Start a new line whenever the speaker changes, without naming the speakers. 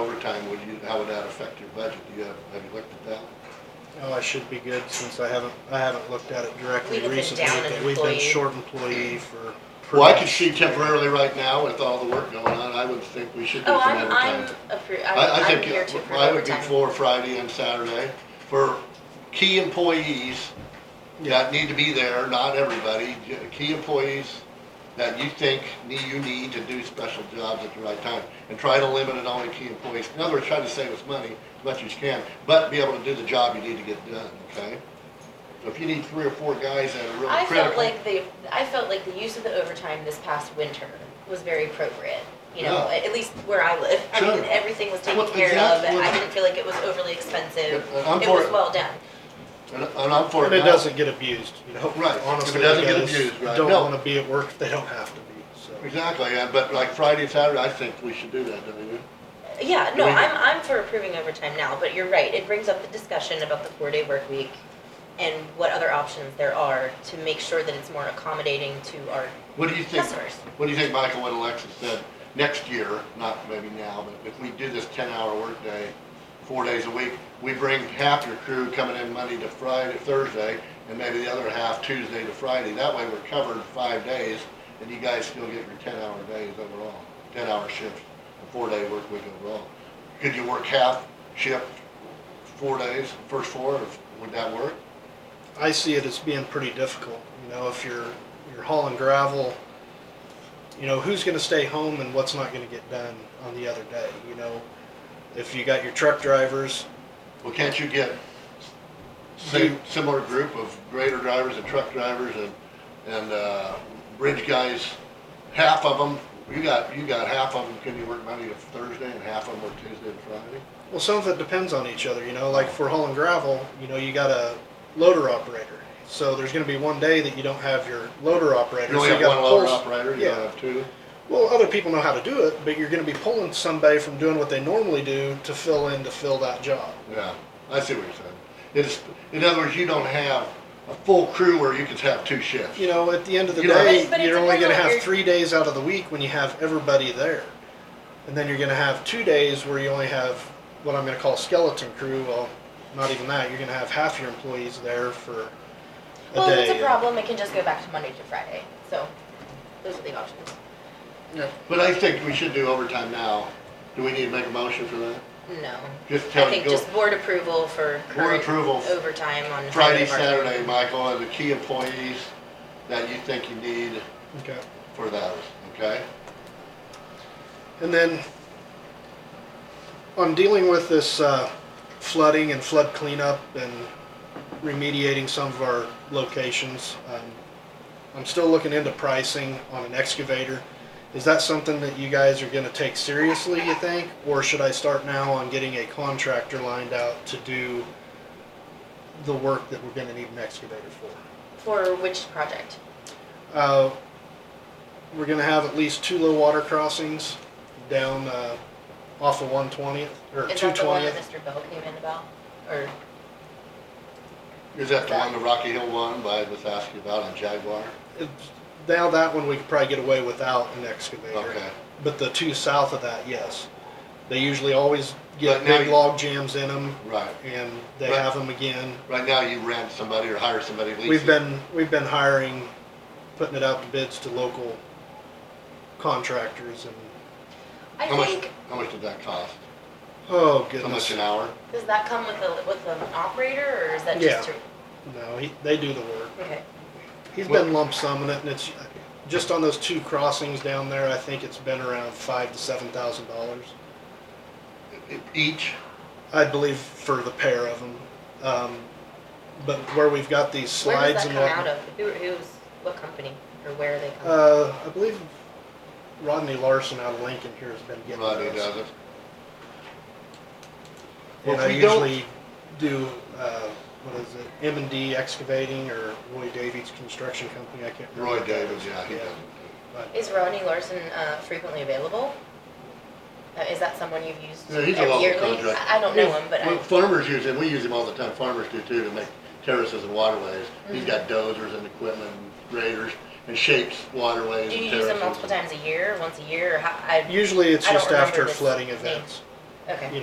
overtime, would you, how would that affect your budget? Do you have, have you looked at that?
Oh, I should be good since I haven't, I haven't looked at it directly
We'd have been
recently.
down an
but We've been
employee.
short employee for.
Well, I could see temporarily right now with all the work going on, I would think we should do
Oh,
some
I'm, I'm,
overtime.
appro-
I,
I'm,
I
I'm
think
here to approve
I would be
overtime.
for Friday and Saturday for key employees that need to be there, not everybody, j- key employees that you think need, you need to do special jobs at the right time. And try to limit it only to key employees. In other words, try to save us money as much as you can, but be able to do the job you need to get done, okay? So if you need three or four guys that are really
I felt
critical.
like the, I felt like the use of the overtime this past winter was very appropriate, you know,
Yeah.
at at least where I live. I mean,
Sure.
everything was taken
Well,
care of,
exactly.
I didn't feel like it was overly expensive,
Yeah, I'm
it
for
was
it.
well done.
And and I'm for it
And it
now.
doesn't get abused, you know?
Right. If it
Honestly, the
doesn't get
guys
abused, right.
Don't
No.
wanna be at work if they don't have to be, so.
Exactly, yeah, but like Friday, Saturday, I think we should do that, don't you?
Yeah,
Do
no,
we-
I'm, I'm for approving overtime now, but you're right, it brings up the discussion about the four-day work week and what other options there are to make sure that it's more accommodating to our
What do you think,
customers.
what do you think, Michael, what Alexis said, next year, not maybe now, but if we do this ten-hour workday, four days a week, we bring half your crew coming in Monday to Friday, Thursday, and maybe the other half Tuesday to Friday, that way we're covered five days, and you guys still get your ten-hour days overall, ten-hour shifts, a four-day work week overall. Could you work half shift, four days, first four, or would that work?
I see it as being pretty difficult, you know, if you're, you're hauling gravel, you know, who's gonna stay home and what's not gonna get done on the other day, you know? If you got your truck drivers,
Well, can't you get
Do-
same, similar group of grader drivers and truck drivers and, and, uh, bridge guys? Half of them, you got, you got half of them, can you work Monday to Thursday and half of them work Tuesday and Friday?
Well, some of it depends on each other, you know, like for hauling gravel, you know, you got a loader operator. So there's gonna be one day that you don't have your loader operator.
You only
so
have
gotta
one loader
pull-
operator, you
Yeah.
don't have two?
Well, other people know how to do it, but you're gonna be pulling somebody from doing what they normally do to fill in to fill that job.
Yeah, I see what you're saying. It's, in other words, you don't have a full crew where you could have two shifts.
You know, at the end of the
You know-
day,
But- but it
you're only
depends
gonna
on
have
your-
three days out of the week when you have everybody there. And then you're gonna have two days where you only have what I'm gonna call skeleton crew. Well, not even that. You're gonna have half your employees there for a
Well, if
day.
it's a problem, it can just go back to Monday to Friday, so those are the options.
But I think we should do overtime now. Do we need to make a motion for that?
No.
Just tell
I
you,
think
go
just board approval for
board
current
approval
overtime on.
Friday,
part of our-
Saturday, Michael, are the key employees that you think you need
Okay.
for those, okay?
And then on dealing with this uh, flooding and flood cleanup and remediating some of our locations, um, I'm still looking into pricing on an excavator. Is that something that you guys are going to take seriously, you think? Or should I start now on getting a contractor lined out to do the work that we're going to need an excavator for?
For which project?
Uh, we're gonna have at least two low water crossings down, uh, off of one twentieth, or
Is
two
that the one that
twentieth.
Mr. Bell came in about? Or,
Is that the one, the Rocky Hill one, by, was asking about on Jaguar?
Now that one, we could probably get away without an excavator,
Okay.
but the two south of that, yes. They usually always get
But now
big
you-
log jams in them,
Right.
and they
But-
have them again.
Right now, you rent somebody or hire somebody, lease
We've
it.
been, we've been hiring, putting it out to bids to local contractors and,
I
How much,
think,
how much did that cost?
oh
How much
goodness.
an hour?
does that come with a, with an operator, or is that
Yeah.
just? to-
No, he, they do the work.
Okay,
He's been lump summing it, and it's, uh, just on those two crossings down there, I think it's been around five to seven thousand dollars.
E- Each?
I believe for the pair of them. Um, but where we've got these
where
slides
does that
and
come out
whatnot.
of? Who, who's, what company, or where are they coming?
Uh, I believe Rodney Larson out of Lincoln here has been getting
Rodney
those.
does it. Well,
And
if
I
we don't-
usually do, uh, what is it, M and D Excavating or Roy Davies Construction Company, I can't remember.
Roy
what that
Davis,
is.
yeah, he does
but-
Is Rodney Larson uh, frequently available? Uh, Is that someone you've used
Yeah, he's
yearly?
a local contractor.
I I don't know him, but
Well,
I,
Farmers use him, we use him all the time, farmers do too, to make terraces and waterways. He's got dozers and equipment, and graders, and shapes waterways and
do you
terraces.
use him multiple times a year, once a year, or how, I?
Usually it's
I don't
just after
remember this
flooding
name.
events.
Okay.
you